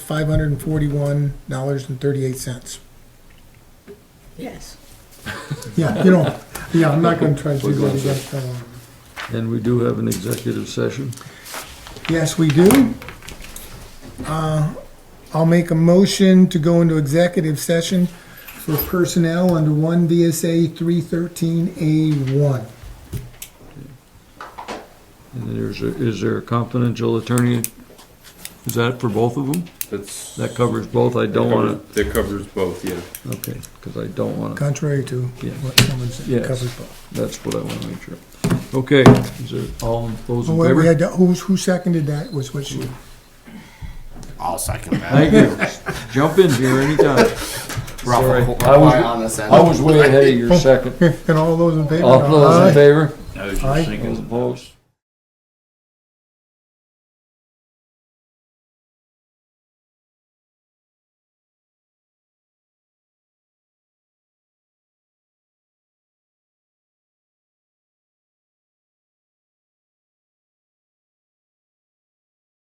five hundred and forty-one dollars and thirty-eight cents. Yes. Yeah, you know, yeah, I'm not gonna try to do We're that going again. Um, And we do have an executive session. Yes, we do. Uh, I'll make a motion to go into executive session for personnel under one VSA three thirteen A one. And there's, a- is there a confidential attorney? Is that for both of them? That's. That covers both? I don't want That covers both, yeah. to, okay, because I don't want to, Contrary to Yes. what someone said, Yes. covered both. that's what I want to make sure. Okay, is there, all those in Well, Oh, we favor? had, who's, who seconded that was what she, I'll second that. Thank you. Jump in here anytime. Sorry. Rough, I was- on this end. I was way ahead of your second. and all those in favor? All those Aye. in favor? Aye. Those opposed?